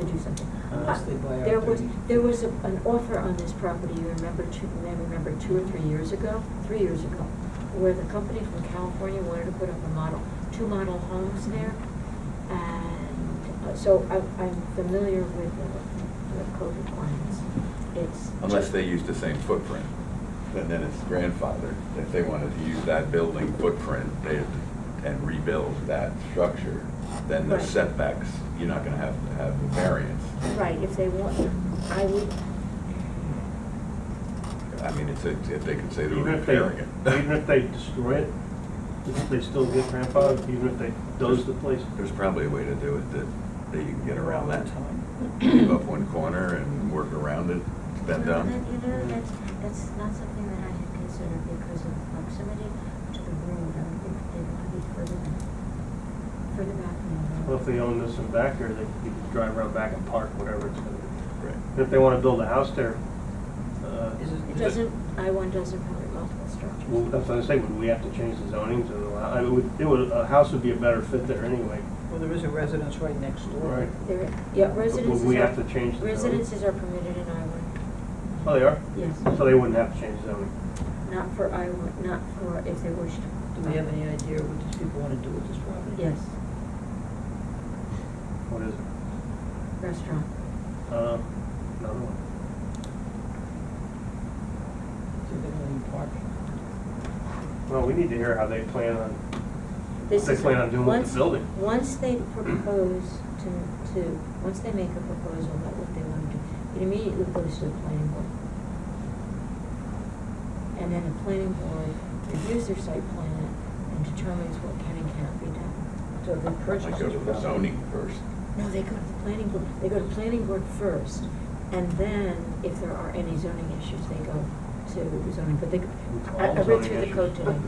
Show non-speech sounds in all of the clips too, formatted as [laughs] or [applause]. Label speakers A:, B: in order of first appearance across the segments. A: do something.
B: Unless they buy out
A: Uh, There was,
B: the-
A: there was a- an offer on this property, you remember, two, I remember two or three years ago, three years ago, where the company from California wanted to put up a model, two model homes there. And uh, so I- I'm familiar with the the code requirements. It's.
C: Unless they use the same footprint, and then it's grandfathered. If they wanted to use that building footprint, they, had to- and rebuild that structure, then the
A: Right.
C: setbacks, you're not gonna have to have the variance.
A: Right, if they want, I would,
C: I mean, it's, a- if they could say they were
D: Even if they,
C: repairing it.
D: [laughs] even if they destroy it, doesn't they still get grandfathered, even if they doze the place?
C: There's probably a way to do it that, that you can get around that. Leave up one corner and work around it, bend
E: No,
C: down.
E: that- You know, that's, that's not something that I had considered because of proximity to the road. I would think they want to be further than,
A: for the back.
D: Well, if they own this and back there, they they could drive around back and park, whatever it's gonna be.
C: Right.
D: And if they wanna build a house there, uh,
B: Is it-
A: It doesn't, I one doesn't permit multiple structures.
D: well, that's what I say, would we have to change the zoning to allow, I would, it would, a house would be a better fit there anyway.
B: Well, there is a residence right next door.
D: Right.
A: There, yeah,
D: But would
A: residences are.
D: we have to change the code?
A: Residences are permitted in I one,
D: Oh, they are?
A: Yes.
D: So they wouldn't have to change zoning?
A: not for I one, not for if they wish to.
B: Do we have any idea what these people want to do with this property?
A: Yes,
D: What is it?
A: restaurant.
D: Uh, another one.
B: They're gonna need parking.
D: Well, we need to hear how they plan on,
A: This
D: They
A: is-
D: plan on doing with the
A: once-
D: building.
A: Once they propose to, to, once they make a proposal about what they want to do, it immediately goes to the planning board. And then the planning board reviews their site plan and determines what can and can't be done.
B: So they
C: I
B: purchased
C: go
B: this
C: to the
B: property.
C: zoning first.
A: No, they go to the planning board, they go to planning board first, and then if there are any zoning issues, they go to zoning, but they, I I read through the code today,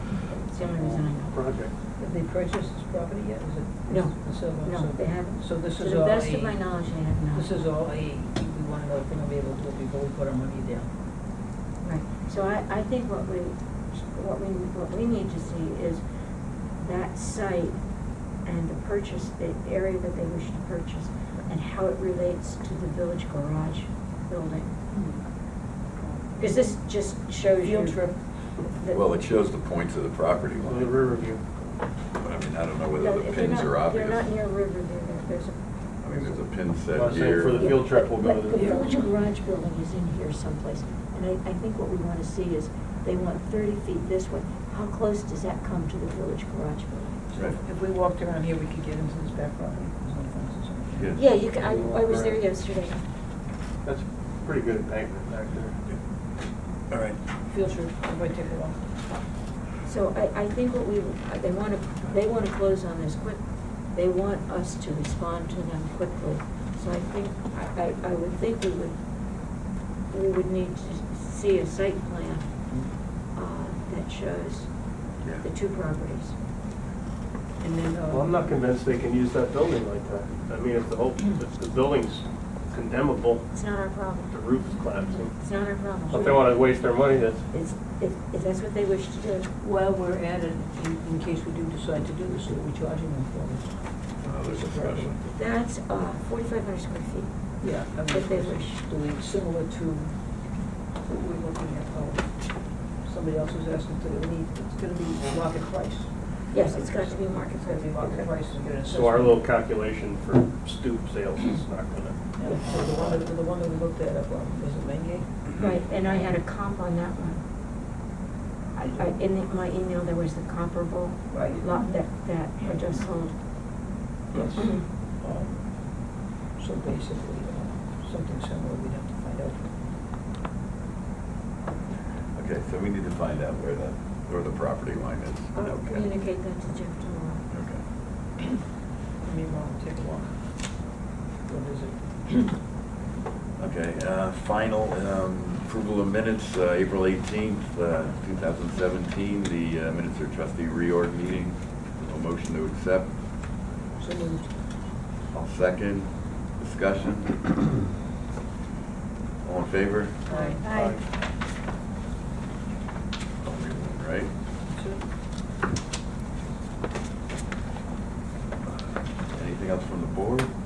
A: it's the only reason I know.
D: Project.
B: Have they purchased this property yet? Is it?
A: No.
B: it's still not-
A: No,
B: so-
A: they haven't.
B: So this
A: To
B: is
A: the
B: all
A: best of
B: a-
A: my knowledge, they have not.
B: This is all a, we want to know if we're going to be able to do it before we put our money down.
A: Right, so I, I think what we, what we, what we need to see is that site and the purchase, the area that they wish to purchase, and how it relates to the village garage building. Because this just shows you.
B: Field trip.
A: the-
C: Well, it shows the points of the property
D: Well,
C: line.
D: the rear view.
C: But I mean, I don't know
A: No,
C: whether the
A: if they're
C: pins
A: not-
C: are obvious.
A: They're not near Riverview, there- there's a.
C: I mean, there's a pin
D: Well,
C: set
D: I'm saying
C: here.
D: for the field trip, we'll go to
A: But
D: the-
A: The village garage building is in here someplace, and I, I think what we want to see is, they want thirty feet this way, how close does that come to the village garage building?
C: Right.
B: If we walked around here, we could get into this back property. There's no fences or anything.
C: Yeah.
A: Yeah, you can, I, I was there yesterday.
D: That's pretty good embankment back there.
C: All right.
B: Field trip, everybody take a walk.
A: So I, I think what we, they want to, they want to close on this quick, they want us to respond to them quickly. So I think, I, I- I would think we would, we would need to see a site plan uh, that shows
C: Yeah.
A: the two properties.
B: And then, uh.
D: Well, I'm not convinced they can use that building like that. I mean, if the whole, if the building's condemnable,
A: It's not our
D: the
A: problem.
D: roof's collapsing.
A: It's not our
D: If they
A: problem.
D: wanna waste their money, that's,
A: It's, if, if that's what they wish to do.
B: While we're at it, in, in case we do decide to do this, are we charging them for
C: Oh, there's a special.
A: That's uh, forty-five hundred square feet.
B: it? Yeah. I mean,
A: If they wish.
B: Do we, similar to what we're looking at, oh, somebody else was asking, to we need, it's gonna be market price.
A: Yes, it's got to be market
B: It's gonna be market price, and get an
D: so our
B: assessment.
D: little calculation for stoop sales is not gonna.
B: Yeah, So the one that, the one that we looked at, up on, was it Main Gate?
A: Right, and I had a comp on that one. I, I, in the- my email, there was the comparable
B: Right.
A: lot that, that I just sold. Mm-hmm.
B: Yes. Um, So basically, uh, something similar, we'd have to find out.
C: Okay, so we need to find out where the, where the property line is.
A: I'll
C: Okay.
A: Uh, communicate that to Jeff tomorrow.
C: Okay.
B: Meanwhile, take a walk. Go visit.
C: Okay, uh, final um, approval of minutes, uh, April 18th, uh, 2017, the uh, minutes are trustee reorg meeting. A motion to accept.
B: So moved.
C: I'll second. Discussion. All in favor?
B: Aye.
A: Aye.
C: Everyone, Right? Anything else from the board?